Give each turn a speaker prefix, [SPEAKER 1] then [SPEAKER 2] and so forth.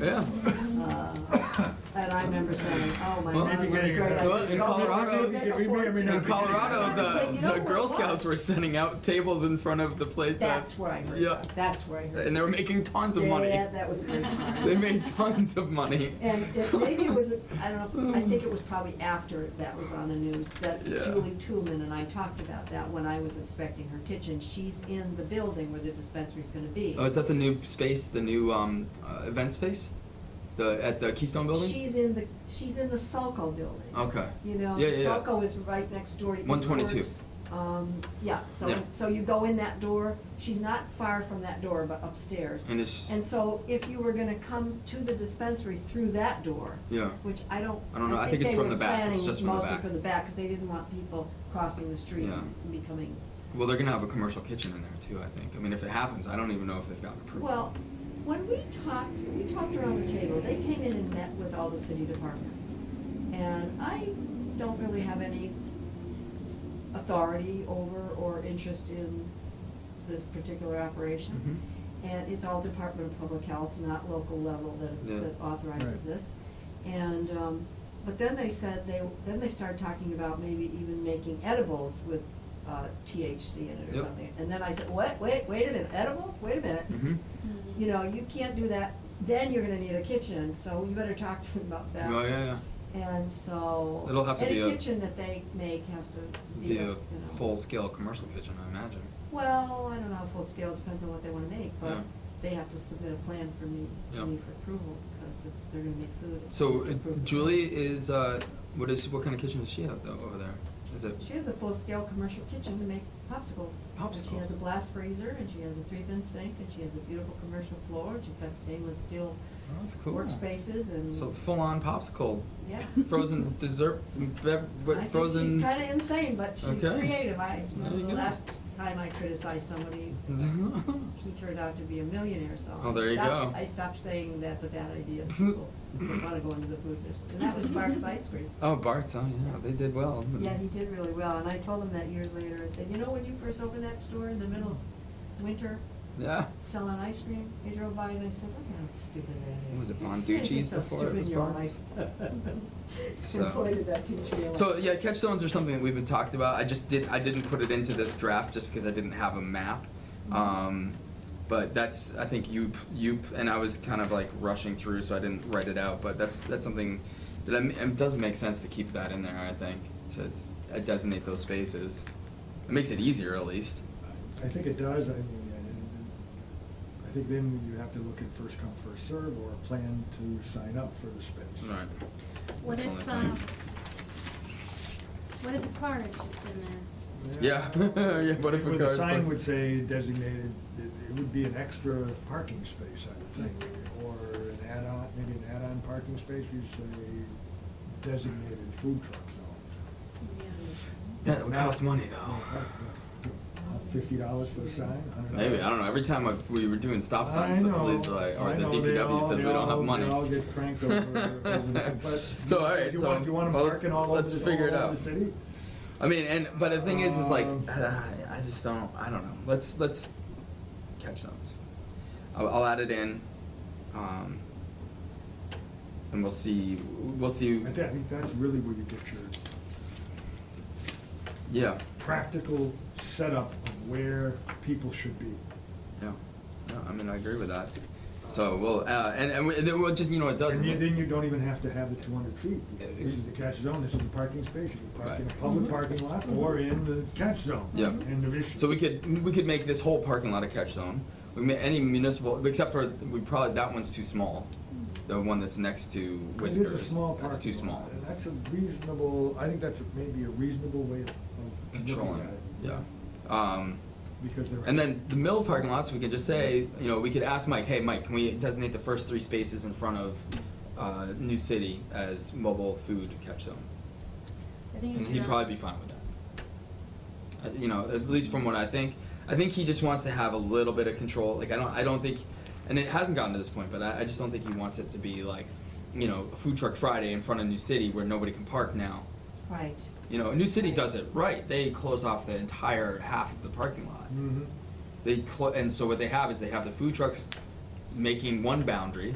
[SPEAKER 1] Yeah.
[SPEAKER 2] Uh, And I remember saying, oh, my
[SPEAKER 1] Well,
[SPEAKER 2] God,
[SPEAKER 1] maybe
[SPEAKER 2] what a
[SPEAKER 3] getting
[SPEAKER 2] great
[SPEAKER 3] it.
[SPEAKER 1] Well, in
[SPEAKER 2] idea.
[SPEAKER 1] Colorado,
[SPEAKER 3] Maybe- maybe- maybe not.
[SPEAKER 1] in Colorado,
[SPEAKER 2] But you
[SPEAKER 1] the,
[SPEAKER 2] know
[SPEAKER 1] the Girl
[SPEAKER 2] what?
[SPEAKER 1] Scouts were sending out tables in front of the plate. that-
[SPEAKER 2] That's where I heard
[SPEAKER 1] Yeah.
[SPEAKER 2] that, that's where I heard
[SPEAKER 1] And they were
[SPEAKER 2] that.
[SPEAKER 1] making tons of
[SPEAKER 2] Yeah,
[SPEAKER 1] money.
[SPEAKER 2] that was very smart.
[SPEAKER 1] They made tons of money.
[SPEAKER 2] And it- maybe it was, I don't know, I think it was probably after that was on the news, that
[SPEAKER 1] Yeah.
[SPEAKER 2] Julie Toolman and I talked about that when I was inspecting her kitchen. She's in the building where the dispensary's gonna be.
[SPEAKER 1] Oh, is that the new space, the new um, uh, event space, the at the Keystone Building?
[SPEAKER 2] She's in the, she's in the Sulco building.
[SPEAKER 1] Okay.
[SPEAKER 2] You know,
[SPEAKER 1] Yeah, yeah, yeah.
[SPEAKER 2] Sulco is right next door to East
[SPEAKER 1] 122.
[SPEAKER 2] Works. Um, yeah, so,
[SPEAKER 1] Yeah.
[SPEAKER 2] so you go in that door, she's not far from that door, but upstairs.
[SPEAKER 1] And it's-
[SPEAKER 2] And so if you were gonna come to the dispensary through that door.
[SPEAKER 1] Yeah.
[SPEAKER 2] Which I don't.
[SPEAKER 1] I don't know. I think it's
[SPEAKER 2] they
[SPEAKER 1] from
[SPEAKER 2] were
[SPEAKER 1] the back. It's
[SPEAKER 2] planning
[SPEAKER 1] just from the back.
[SPEAKER 2] Mostly from the back, because they didn't want people crossing the street
[SPEAKER 1] Yeah.
[SPEAKER 2] and becoming,
[SPEAKER 1] Well, they're gonna have a commercial kitchen in there too. I think. I mean, if it happens, I don't even know if they've gotten approved.
[SPEAKER 2] well, when we talked, we talked around the table, they came in and met with all the city departments. And I don't really have any authority over or interest in this particular operation.
[SPEAKER 1] Mm-hmm.
[SPEAKER 2] And it's all Department of Public Health, not local level
[SPEAKER 1] Yeah.
[SPEAKER 2] that, that authorizes
[SPEAKER 3] Right.
[SPEAKER 2] this. And, um, but then they said, they, then they started talking about maybe even making edibles with, uh, THC in it or
[SPEAKER 1] Yep.
[SPEAKER 2] something. And then I said, what, wait, wait a minute, edibles, wait a minute.
[SPEAKER 1] hmm
[SPEAKER 2] You know, you can't do that, then you're gonna need a kitchen, so you better talk to them about that.
[SPEAKER 1] Oh yeah, yeah.
[SPEAKER 2] And so.
[SPEAKER 1] It'll have to be a-
[SPEAKER 2] Any kitchen that they make has to be,
[SPEAKER 1] Be
[SPEAKER 2] you
[SPEAKER 1] a
[SPEAKER 2] know.
[SPEAKER 1] full-scale commercial kitchen, I imagine.
[SPEAKER 2] Well, I don't know, how full scale, depends on what they wanna make, but
[SPEAKER 1] Yeah.
[SPEAKER 2] they have to submit a plan for me,
[SPEAKER 1] Yeah.
[SPEAKER 2] to me for approval, because if they're gonna make food. it's
[SPEAKER 1] So uh,
[SPEAKER 2] approved.
[SPEAKER 1] Julie is uh, what is what kind of kitchen does she have though over there? Is it?
[SPEAKER 2] She has a full-scale commercial kitchen to make popsicles. And she has a
[SPEAKER 1] Popsicles.
[SPEAKER 2] blast freezer, and she has a three-bin sink, and she has a beautiful commercial floor, and she's got stainless steel
[SPEAKER 1] Oh, that's cool.
[SPEAKER 2] workspaces and.
[SPEAKER 1] So full-on popsicle,
[SPEAKER 2] Yeah.
[SPEAKER 1] frozen dessert, bev-
[SPEAKER 2] I
[SPEAKER 1] what,
[SPEAKER 2] think
[SPEAKER 1] frozen.
[SPEAKER 2] She's kinda insane, but she's
[SPEAKER 1] Okay.
[SPEAKER 2] creative. I,
[SPEAKER 1] There you
[SPEAKER 2] the
[SPEAKER 1] go.
[SPEAKER 2] last time I criticized somebody, he turned out to be a millionaire, so.
[SPEAKER 1] Oh,
[SPEAKER 2] I
[SPEAKER 1] there you
[SPEAKER 2] stopped-
[SPEAKER 1] go.
[SPEAKER 2] I stopped saying that's a bad idea to people. who wanna go into the food business. And that was Bart's Ice Cream.
[SPEAKER 1] Oh, Bart's, oh yeah, they did well.
[SPEAKER 2] Yeah, he did really well, and I told him that years later, I said, you know, when you first opened that store in the middle of winter,
[SPEAKER 1] Yeah.
[SPEAKER 2] selling ice cream, they drove by and I said, look how stupid that is.
[SPEAKER 1] Was it
[SPEAKER 2] You're just gonna get
[SPEAKER 1] Bonducci's
[SPEAKER 2] so
[SPEAKER 1] before it
[SPEAKER 2] stupid
[SPEAKER 1] was
[SPEAKER 2] in your
[SPEAKER 1] Bonds?
[SPEAKER 2] life."
[SPEAKER 1] So-
[SPEAKER 2] And pointed that teacher out.
[SPEAKER 1] So yeah, catch zones are something that we've been talked about. I just did I didn't put it into this draft just because I didn't have a map. Um, but that's I think you you and I was kind of like rushing through, so I didn't write it out. But that's that's something that I, it doesn't make sense to keep that in there. I think to s- uh, designate those spaces. It makes it easier at least.
[SPEAKER 3] I think it does, I mean, and- I think then you have to look at first come, first serve or a plan to sign up for the space.
[SPEAKER 1] Right.
[SPEAKER 4] What
[SPEAKER 1] That's the only
[SPEAKER 4] if,
[SPEAKER 1] thing.
[SPEAKER 4] um, what if a car is just in there?
[SPEAKER 1] Yeah. Yeah, what if a
[SPEAKER 3] With The
[SPEAKER 1] car's
[SPEAKER 3] sign
[SPEAKER 1] parked-
[SPEAKER 3] would say designated, it it would be an extra parking space, I would think, or an add-on, maybe an add-on parking space, you say designated food truck zone.
[SPEAKER 1] That would
[SPEAKER 3] Now-
[SPEAKER 1] cost money though.
[SPEAKER 3] Fifty dollars for a sign, I don't know.
[SPEAKER 1] Maybe I don't know. Every time I, we were doing stop signs,
[SPEAKER 3] I
[SPEAKER 1] the police
[SPEAKER 3] know,
[SPEAKER 1] are like, or
[SPEAKER 3] I
[SPEAKER 1] the
[SPEAKER 3] know, they
[SPEAKER 1] DPW
[SPEAKER 3] all-
[SPEAKER 1] says we
[SPEAKER 3] they
[SPEAKER 1] don't have
[SPEAKER 3] all-
[SPEAKER 1] money.
[SPEAKER 3] They all get cranked over, over the- but.
[SPEAKER 1] so all right,
[SPEAKER 3] you
[SPEAKER 1] so
[SPEAKER 3] want- You want
[SPEAKER 1] well,
[SPEAKER 3] them
[SPEAKER 1] let's-
[SPEAKER 3] parking all over
[SPEAKER 1] let's
[SPEAKER 3] the,
[SPEAKER 1] figure it
[SPEAKER 3] all
[SPEAKER 1] out.
[SPEAKER 3] over the city?
[SPEAKER 1] I mean, and but the thing is, is like,
[SPEAKER 3] Um,
[SPEAKER 1] I just don't. I don't know. Let's let's catch zones. I'll, I'll add it in, um, and we'll see. We'll see.
[SPEAKER 3] I thi- I think that's really where you get your
[SPEAKER 1] Yeah,
[SPEAKER 3] practical setup of where people should be.
[SPEAKER 1] yeah. No, I mean, I agree with that. So we'll uh, and and, we, and then we'll just you know what it does.
[SPEAKER 3] And
[SPEAKER 1] is
[SPEAKER 3] you-
[SPEAKER 1] it-
[SPEAKER 3] then you don't even have to have the two hundred feet, because this is the catch zone, this is the parking space, you can park in a
[SPEAKER 1] Right.
[SPEAKER 3] public parking lot or in the catch zone.
[SPEAKER 1] Yeah.
[SPEAKER 3] End of issue.
[SPEAKER 1] So we could, we could make this whole parking lot a catch zone. We ma- any municipal, except for, we probably, that one's too small. The one that's next to Whiskers.
[SPEAKER 3] It is a small parking lot.
[SPEAKER 1] That's too small.
[SPEAKER 3] and That's a reasonable, I think that's a- maybe a reasonable way of- of
[SPEAKER 1] Controlling,
[SPEAKER 3] looking at
[SPEAKER 1] it,
[SPEAKER 3] it.
[SPEAKER 1] yeah. Um,
[SPEAKER 3] Because there.
[SPEAKER 1] and then the mill parking lots, we could just say, you know, we could ask Mike, hey, Mike, can we designate the first three spaces in front of, uh, New City as mobile food catch zone?
[SPEAKER 4] I think you
[SPEAKER 1] And
[SPEAKER 4] should
[SPEAKER 1] he'd
[SPEAKER 4] not-
[SPEAKER 1] probably be fine with that. Uh, You know, at least from what I think. I think he just wants to have a little bit of control. Like I don't, I don't think, and it hasn't gotten to this point, but I, I just don't think he wants it to be like, you know, food truck Friday in front of New City where nobody can park now.
[SPEAKER 2] Right.
[SPEAKER 1] You know, New City does it right. They close off the entire half of the parking lot.
[SPEAKER 3] Mhm.
[SPEAKER 1] They clo- and so what they have is they have the food trucks making one boundary,